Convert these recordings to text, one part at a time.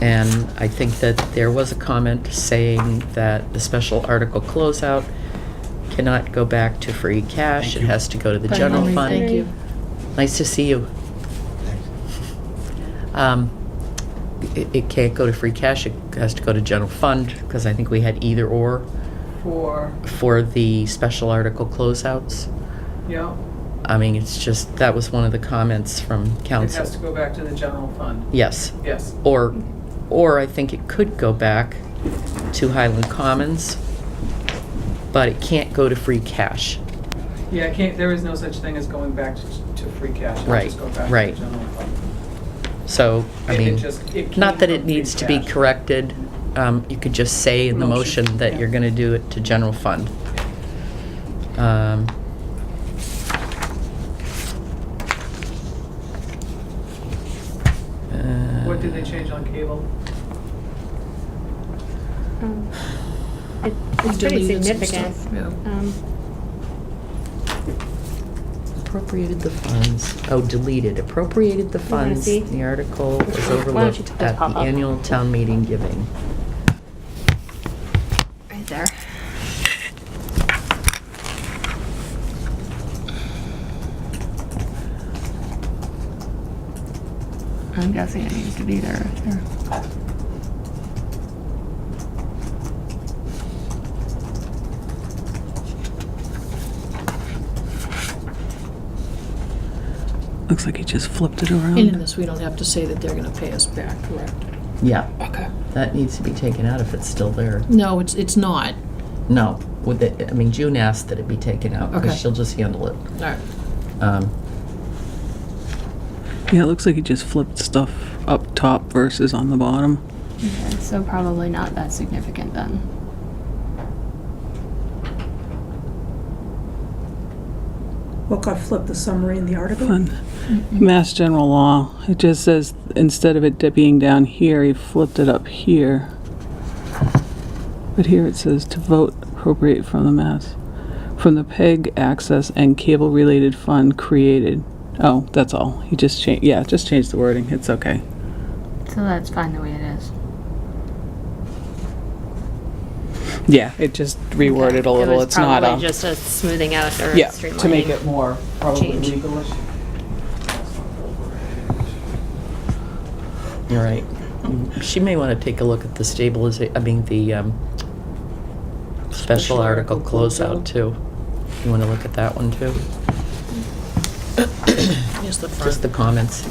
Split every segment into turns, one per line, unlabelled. And I think that there was a comment saying that the special article closeout cannot go back to free cash.
Thank
It
you.
has to go to the general
Finally,
fund.
Thank you.
Nice to see you. Um, It it can't go to free cash, it has to go to general fund, because I think we had either or
For,
for the special article closeouts.
yeah,
I mean, it's just, that was one of the comments from
it
council.
has to go back to the general fund,
Yes,
yes.
or, or I think it could go back to Highland Commons, but it can't go to free cash.
Yeah, I can't, there is no such thing as going back to, to free cash. It'll
Right,
just go back to
right.
the general fund.
So, I
It- it
mean,
just- it came
not that
from
it
free
needs to be
cash.
corrected, um, you could just say in the
Motion,
motion that
yeah.
you're gonna do it to general fund. Um,
What did they change on cable?
Um, it- It's pretty
Deleted some
significant.
stuff, yeah.
Um,
Appropriated the funds, oh, deleted, appropriated the
wanna
funds,
see?
the article
Why
was
don't you
overlooked
take those
at
pop
the
up?
annual town meeting giving.
Right there. I'm guessing it needs to be there, right there.
Looks like he just flipped it around.
And in this, we don't have to say that they're gonna pay us back, correct?
Yeah,
Okay.
that needs to be taken out if it's still there.
No, it's, it's not.
No, would it, I mean, June asked that it be taken out,
Okay.
because she'll just handle it.
All right.
Um,
Yeah, it looks like he just flipped stuff up top versus on the bottom.
Okay, so probably not that significant then.
What got flipped, the summary in the article?
Fun. Mass general law. It just says instead of it di- being down here, he flipped it up here. But here it says to vote appropriate from the mass, from the PEG access and cable related fund created. Oh, that's all. He just changed. Yeah, just changed the wording. It's okay.
So that's fine the way it is.
Yeah, it just reworded a little. it's not
It
um,
was probably just a smoothing out or a
yeah
streamlining.
to make it
More, probably
Change.
legalish.
All right. She may want to take a look at the stabilization, I mean, the um, special
Special
article
article
closeout,
closeout.
too. You want to look at that one, too?
Here's the front.
Just the comments.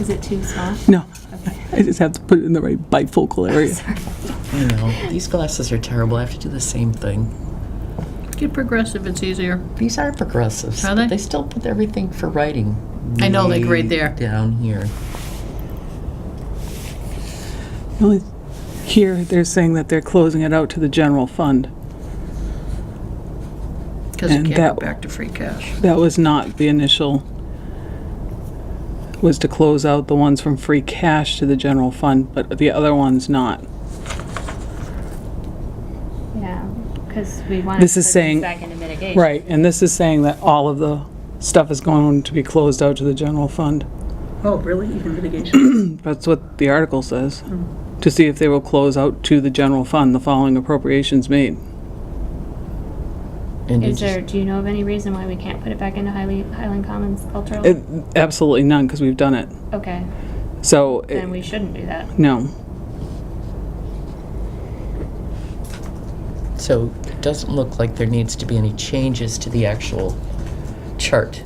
Is it too small?
No. I just have to put it in the right bifocal area.
I know, these glasses are terrible. I have to do the same thing.
Get progressive, it's easier.
These are progressives.
Are
but
they?
They still put everything for writing.
I know, like right
way
there.
Down here.
Well, Here, they're saying that they're closing it out to the general fund.
Because it
And
can't go
that-
back to free cash.
That was not the initial, was to close out the ones from free cash to the general fund, but the other ones not.
Yeah, because we wanted
This
to
is
put
saying-
things back into mitigation.
Right, and this is saying that all of the stuff is going to be closed out to the general fund.
Oh, really? Even litigation?
That's what the article says. To see if they will close out to the general fund the following appropriations made.
And you
Is
just-
there, do you know of any reason why we can't put it back into Highly- Highland Commons cultural?
It- Absolutely none, because we've done it.
Okay,
So, it-
then we shouldn't do that.
no.
So it doesn't look like there needs to be any changes to the actual chart.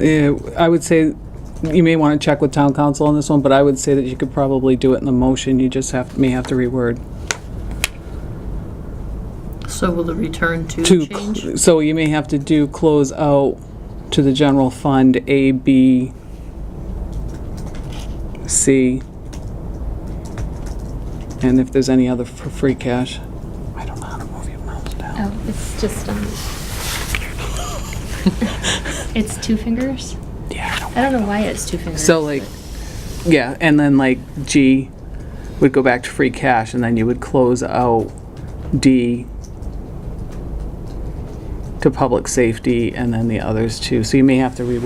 Uh, I would say, you may want to check with town council on this one, but I would say that you could probably do it in the motion, you just have, may have to reword.
So will the return to
To,
change?
cl- so you may have to do close out to the general fund, A, B, C, and if there's any other for free cash. I don't know how to move your mouse down.
Oh, it's just, um, it's two fingers?
Yeah, I don't-
I don't know why it's two fingers.
So like, yeah, and then like G would go back to free cash, and then you would close out D to public safety, and then the others too. So you may have to rework